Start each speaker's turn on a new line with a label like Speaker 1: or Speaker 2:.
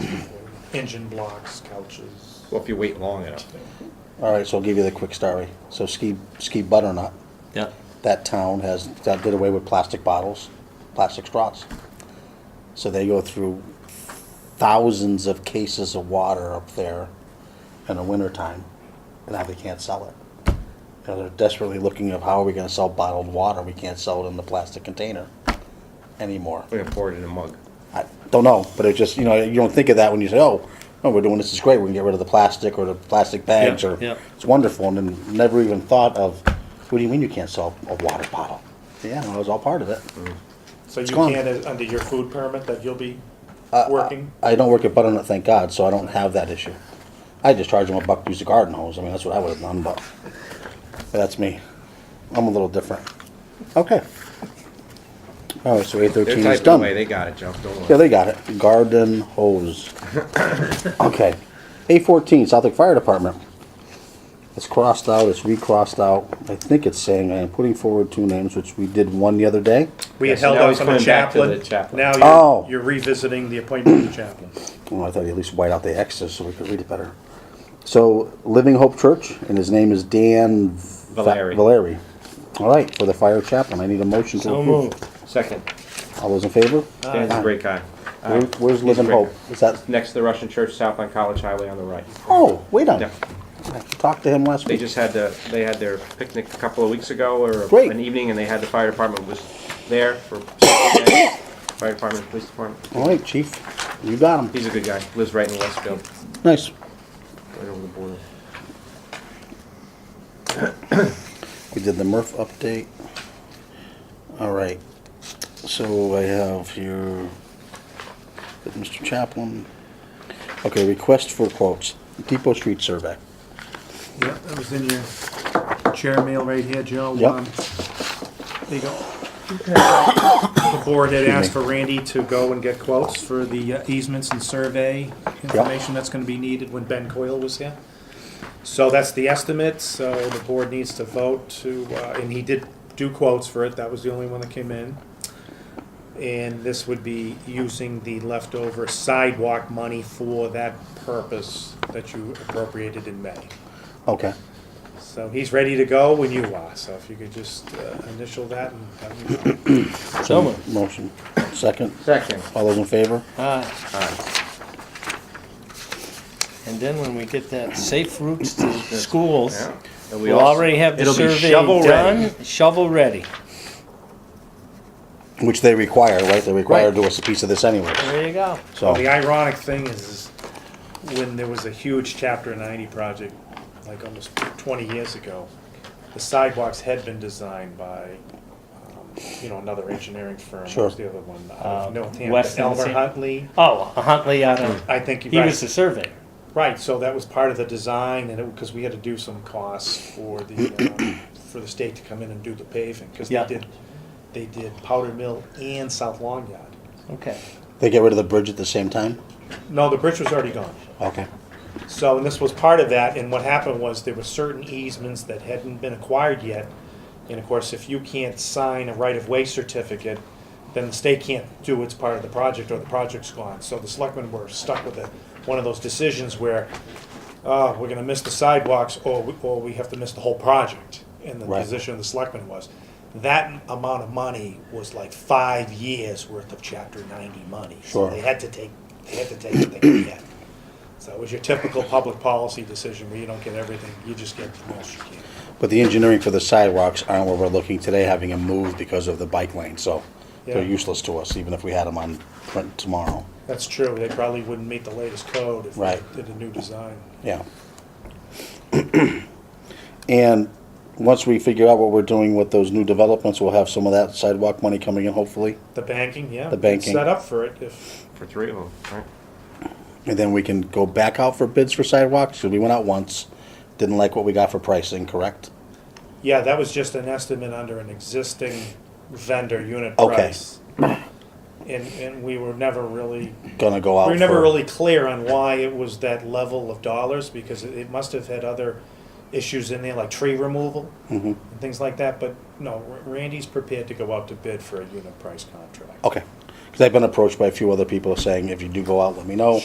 Speaker 1: engine blocks, couches.
Speaker 2: Well, if you wait long enough.
Speaker 3: All right, so I'll give you the quick story. So Ski, Ski Butternut,
Speaker 4: Yeah.
Speaker 3: that town has, that did away with plastic bottles, plastic straws. So they go through thousands of cases of water up there in the wintertime, and now they can't sell it. And they're desperately looking of how are we gonna sell bottled water? We can't sell it in the plastic container anymore.
Speaker 2: We're gonna pour it in a mug.
Speaker 3: I don't know, but it just, you know, you don't think of that when you say, oh, no, we're doing this, is great, we can get rid of the plastic or the plastic bags
Speaker 4: Yeah,
Speaker 3: or,
Speaker 4: yeah.
Speaker 3: it's wonderful, and then never even thought of, what do you mean you can't sell a water bottle? Yeah, no, it was all part of it.
Speaker 1: So you
Speaker 3: gone. Uh,
Speaker 1: can, uh, under your food permit that you'll be working?
Speaker 3: I don't work at Butternut, thank God, so I don't have that issue. I just charge them a buck to use the garden hose, I mean, that's what I would have done, but that's me. I'm a little different. Okay. All right, so eight
Speaker 2: They're
Speaker 3: thirteen is
Speaker 2: typing
Speaker 3: done.
Speaker 2: away, they got it, Jeff, don't worry.
Speaker 3: Yeah, they got it. Garden hose. Okay. A fourteen, Southwick Fire Department. It's crossed out, it's recrossed out. I think it's saying I am putting forward two names, which we did one the other day.
Speaker 1: We
Speaker 2: Yeah,
Speaker 1: had
Speaker 2: so
Speaker 1: held
Speaker 2: now he's
Speaker 1: off on the
Speaker 2: coming back to the
Speaker 1: chaplain.
Speaker 2: chaplain.
Speaker 1: Now
Speaker 3: Oh.
Speaker 1: you're, you're revisiting the appointment of the chaplain.
Speaker 3: Well, I thought you at least white out the X's so we could read it better. So Living Hope Church, and his name is Dan Va-
Speaker 2: Valeri.
Speaker 3: Valeri. All right, for the fire chaplain. I need a motion to approve.
Speaker 2: Second,
Speaker 3: All those in favor?
Speaker 2: Dan's a great guy.
Speaker 3: Where-
Speaker 2: Aye.
Speaker 3: Where's
Speaker 2: He's
Speaker 3: Living
Speaker 2: great.
Speaker 3: Hope? Is that,
Speaker 2: Next to the Russian church, south on College Highway on the right.
Speaker 3: oh, wait on
Speaker 2: Yeah.
Speaker 3: it. Talked to him last
Speaker 2: They
Speaker 3: week.
Speaker 2: just had the, they had their picnic a couple of weeks ago or
Speaker 3: Great.
Speaker 2: an evening and they had the fire department was there for. Fire department, police department.
Speaker 3: All right, chief, you got him.
Speaker 2: He's a good guy, lives right in Westfield,
Speaker 3: Nice.
Speaker 2: right over the border.
Speaker 3: We did the Murph update. All right. So I have here, with Mr. Chaplin. Okay, request for quotes, Depot Street survey.
Speaker 1: Yeah, that was in your chair mail right here, Joe.
Speaker 3: Yep.
Speaker 1: Um, There you go. The board had asked for Randy to go and get quotes for the uh, easements and survey information that's gonna be needed when Ben Coyle was here. So that's the estimate, so the board needs to vote to, uh, and he did do quotes for it, that was the only one that came in. And this would be using the leftover sidewalk money for that purpose that you appropriated in May.
Speaker 3: Okay.
Speaker 1: So he's ready to go when you are, so if you could just uh, initial that and have him go.
Speaker 4: So moved.
Speaker 3: Motion. Second.
Speaker 2: Second,
Speaker 3: All those in favor?
Speaker 4: Aye.
Speaker 2: aye.
Speaker 4: And then when we get that safe routes to schools,
Speaker 2: Yeah. And we
Speaker 4: we'll
Speaker 2: also-
Speaker 4: already have the
Speaker 2: it'll be
Speaker 4: survey
Speaker 2: shovel-ready.
Speaker 4: done, shovel ready.
Speaker 3: Which they require, right? They require
Speaker 4: Right. Oh,
Speaker 3: to do us a piece of this anyway.
Speaker 4: There you go.
Speaker 1: Well,
Speaker 3: So,
Speaker 1: the ironic thing is, is when there was a huge chapter ninety project, like almost twenty years ago, the sidewalks had been designed by, um, you know, another engineering firm. What
Speaker 3: Sure.
Speaker 1: was the other one? Out of
Speaker 4: Uh,
Speaker 1: Northampton,
Speaker 4: Weston,
Speaker 1: Elmer
Speaker 4: same.
Speaker 1: Huntley.
Speaker 4: Oh, Huntley out of,
Speaker 2: Hmm.
Speaker 1: I think
Speaker 4: he
Speaker 1: you're
Speaker 4: was
Speaker 1: right.
Speaker 4: the surveyor.
Speaker 1: Right, so that was part of the design and it, because we had to do some costs for the, um, for the state to come in and do the paving. Because they
Speaker 4: Yeah.
Speaker 1: did, they did Powder Mill and South Long Yard.
Speaker 4: Okay.
Speaker 3: they get rid of the bridge at the same time?
Speaker 1: No, the bridge was already gone.
Speaker 3: Okay.
Speaker 1: So, and this was part of that, and what happened was there were certain easements that hadn't been acquired yet. And of course, if you can't sign a right-of-way certificate, then the state can't do its part of the project, or the project's gone. So the selectmen were stuck with a, one of those decisions where, uh, we're gonna miss the sidewalks, or, we- or we have to miss the whole project. And the
Speaker 3: Right.
Speaker 1: position of the selectmen was, that amount of money was like five years' worth of chapter ninety money. So
Speaker 3: Sure.
Speaker 1: They had to take, they had to take what they could get. So it was your typical public policy decision where you don't get everything, you just get the most you can.
Speaker 3: But the engineering for the sidewalks aren't where we're looking today, having them moved because of the bike lane, so they're
Speaker 1: Yeah.
Speaker 3: useless to us, even if we had them on print tomorrow.
Speaker 1: That's true, they probably wouldn't meet the latest code if they
Speaker 3: Right.
Speaker 1: did a new design.
Speaker 3: Yeah. And once we figure out what we're doing with those new developments, we'll have some of that sidewalk money coming in, hopefully.
Speaker 1: The banking, yeah.
Speaker 3: The banking.
Speaker 1: Set up for it if,
Speaker 2: For three of them, right?
Speaker 3: And then we can go back out for bids for sidewalks, 'cause we went out once, didn't like what we got for pricing, correct?
Speaker 1: yeah, that was just an estimate under an existing vendor unit
Speaker 3: Okay.
Speaker 1: price. And, and we were never really
Speaker 3: Gonna go out
Speaker 1: We were never
Speaker 3: for-
Speaker 1: really clear on why it was that level of dollars, because it- it must have had other issues in there, like tree removal
Speaker 3: Mm-hmm.
Speaker 1: and things like that, but no, Ra- Randy's prepared to go out to bid for a unit price contract.
Speaker 3: Okay, because I've been approached by a few other people saying, if you do go out, let me know.